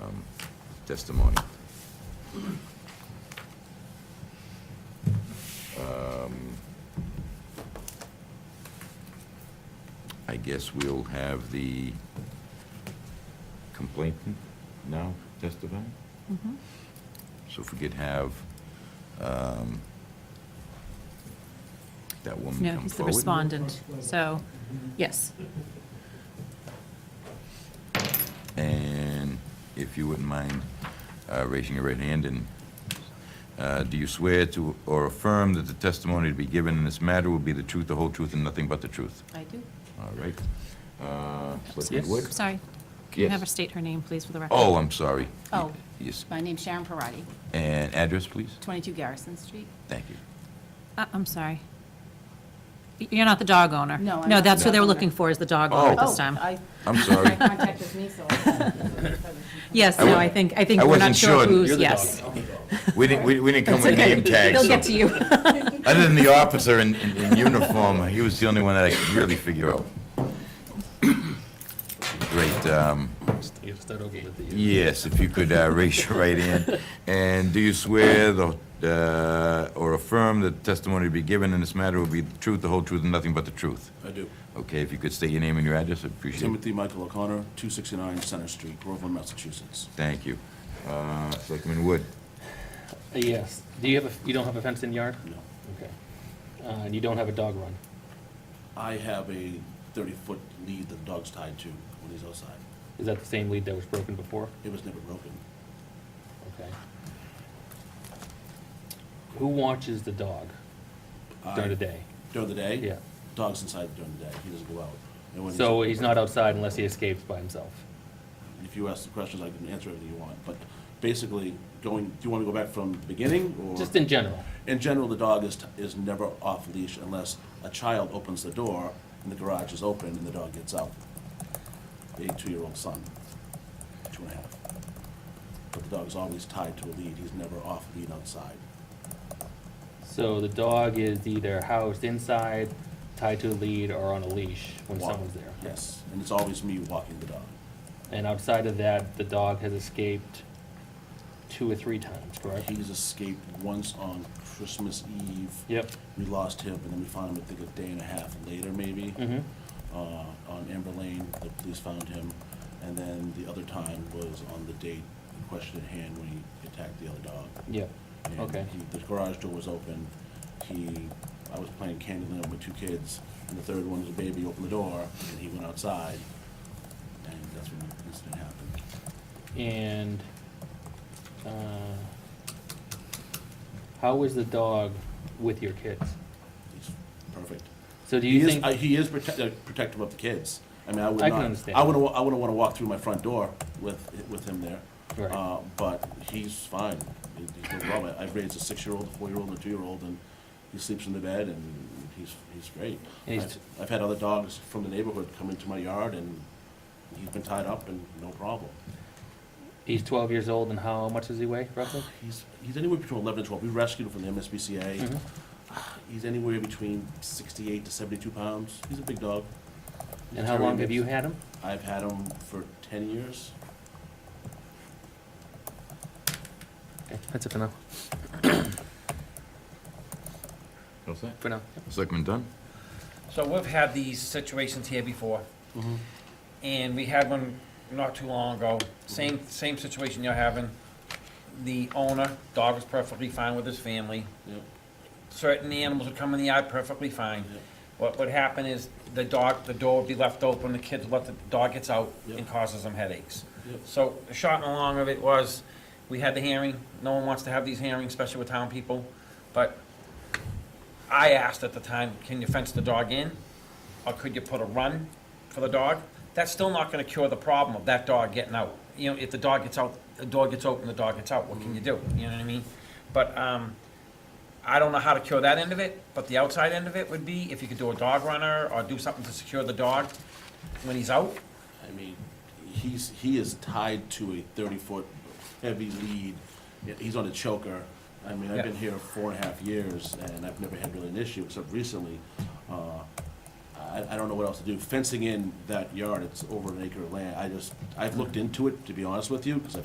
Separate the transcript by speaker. Speaker 1: um, testimony. Um, I guess we'll have the complainant now testify? Mm-hmm. So if we could have um, that woman come
Speaker 2: No,
Speaker 1: forward?
Speaker 2: he's the respondent, so, yes.
Speaker 1: And if you wouldn't mind uh, raising your right hand, and uh, do you swear to or affirm that the testimony to be given in this matter will be the truth, the whole truth, and nothing but the truth?
Speaker 2: I do.
Speaker 1: All right. Uh, Selectman Wood?
Speaker 2: I'm Sorry.
Speaker 1: Yes.
Speaker 2: Have her state her name, please, for the record.
Speaker 1: Oh, I'm sorry.
Speaker 2: Oh.
Speaker 1: Yes,
Speaker 3: My name's Sharon Parati,
Speaker 1: and address, please?
Speaker 3: 22 Garrison Street.
Speaker 1: Thank you.
Speaker 2: Uh, I'm sorry. Y- You're not the dog owner?
Speaker 3: No, I'm
Speaker 2: No,
Speaker 3: not
Speaker 2: that's
Speaker 3: the
Speaker 2: who they were
Speaker 3: dog owner.
Speaker 2: looking for, is the dog owner at
Speaker 1: Oh.
Speaker 2: this time.
Speaker 3: Oh, I-
Speaker 1: I'm sorry.
Speaker 3: My contact is me, so. I-
Speaker 2: Yes,
Speaker 1: I
Speaker 2: no,
Speaker 1: wa-
Speaker 2: I think, I
Speaker 1: I
Speaker 2: think we're
Speaker 1: wasn't
Speaker 2: not sure
Speaker 1: sure.
Speaker 2: who's,
Speaker 1: You're
Speaker 2: yes.
Speaker 1: We didn't, we we didn't come with
Speaker 2: It's okay.
Speaker 1: name tags.
Speaker 2: They'll
Speaker 1: so-
Speaker 2: get to you.
Speaker 1: Other than the officer in, in in uniform, he was the only one that I could really figure out. Great, um,
Speaker 4: You have to start over with the.
Speaker 1: yes, if you could uh, raise your right hand. And do you swear the- uh, or affirm that the testimony to be given in this matter will be the truth, the whole truth, and nothing but the truth?
Speaker 5: I do.
Speaker 1: Okay, if you could state your name and your address, I'd appreciate it.
Speaker 5: Timothy Michael O'Connor, 269 Center Street, Groveland, Massachusetts.
Speaker 1: Thank you. Uh, Selectman Wood?
Speaker 4: Yes. Do you have a, you don't have a fenced-in yard?
Speaker 5: No.
Speaker 4: Okay. Uh, and you don't have a dog run?
Speaker 5: I have a 30-foot lead that the dog's tied to when he's outside.
Speaker 4: Is that the same lead that was broken before?
Speaker 5: It was never broken.
Speaker 4: Okay. Who watches the dog during the
Speaker 5: I-
Speaker 4: day?
Speaker 5: During the day?
Speaker 4: Yeah.
Speaker 5: Dog's inside during the day. He doesn't go out. And when
Speaker 4: So he's not outside unless he escapes by himself?
Speaker 5: If you ask the questions, I can answer everything you want. But basically, going, do you want to go back from the beginning or?
Speaker 4: Just in general?
Speaker 5: In general, the dog is, is never off leash unless a child opens the door and the garage is open and the dog gets out. A two-year-old son, two and a half. But the dog's always tied to a lead, he's never off lead outside.
Speaker 4: So the dog is either housed inside, tied to a lead, or on a leash when
Speaker 5: Walk-
Speaker 4: someone's there?
Speaker 5: Yes, and it's always me walking the dog.
Speaker 4: And outside of that, the dog has escaped two or three times, correct?
Speaker 5: He's escaped once on Christmas Eve.
Speaker 4: Yep.
Speaker 5: We lost him, and then we found him, I think, a day and a half later, maybe.
Speaker 4: Mm-hmm.
Speaker 5: uh, on Amber Lane, the police found him, and then the other time was on the date, the question at hand, when he attacked the other dog.
Speaker 4: Yep.
Speaker 5: And
Speaker 4: Okay.
Speaker 5: he- The garage door was open, he, I was playing Candyland with two kids, and the third one was a baby, opened the door, and he went outside, and that's when the incident happened.
Speaker 4: And uh, how was the dog with your kids?
Speaker 5: He's perfect.
Speaker 4: So do
Speaker 5: He
Speaker 4: you
Speaker 5: is,
Speaker 4: think?
Speaker 5: I- he is protect- uh, protective of the kids. I mean, I would
Speaker 4: I
Speaker 5: not.
Speaker 4: can understand.
Speaker 5: I wouldn't, wa- I wouldn't want to walk through my front door with, with him there.
Speaker 4: Right.
Speaker 5: Uh, But he's fine. He- He's doing well. I- I've raised a six-year-old, a four-year-old, and a two-year-old, and he sleeps in the bed, and he's, he's great.
Speaker 4: And he's-
Speaker 5: I've I've had other dogs from the neighborhood come into my yard, and he's been tied up and no problem.
Speaker 4: he's 12 years old, and how much does he weigh roughly?
Speaker 5: He's, he's anywhere between eleven and twelve. We rescued him from the MSPCA.
Speaker 4: Mhm.
Speaker 5: Ah, He's anywhere between sixty-eight to seventy-two pounds. He's a big dog. He's
Speaker 4: And how
Speaker 5: very
Speaker 4: long have
Speaker 5: mixed.
Speaker 4: you had him?
Speaker 5: I've had him for ten years.
Speaker 4: Okay, that's it for now.
Speaker 1: What's that?
Speaker 4: For now.
Speaker 1: Selectman Dunn?
Speaker 6: So we've had these situations here before, and we had one not too long ago, same, same situation you're having. The owner, dog was perfectly fine with his family.
Speaker 5: Yep.
Speaker 6: Certain animals would come in the yard perfectly fine.
Speaker 5: Yep.
Speaker 6: What would happen is the dog, the door would be left open, the kids would let the dog gets out and
Speaker 5: Yep.
Speaker 6: causes them headaches.
Speaker 5: Yep.
Speaker 6: So the short and long of it was, we had the hearing, no one wants to have these hearings, especially with town people, but I asked at the time, can you fence the dog in? Or could you put a run for the dog? That's still not gonna cure the problem of that dog getting out. You know, if the dog gets out, the door gets open, the dog gets out, what can you do? You know what I mean? But, um, I don't know how to cure that end of it, but the outside end of it would be if you could do a dog runner or do something to secure the dog when he's out.
Speaker 5: I mean, he's, he is tied to a thirty-foot heavy lead. Yeah, He's on a choker. I mean, I've been
Speaker 6: Yeah.
Speaker 5: here four and a half years, and I've never had really an issue, except recently. Uh, I, I don't know what else to do. Fencing in that yard, it's over an acre of land. I just, I've looked into it, to be honest with you, because I've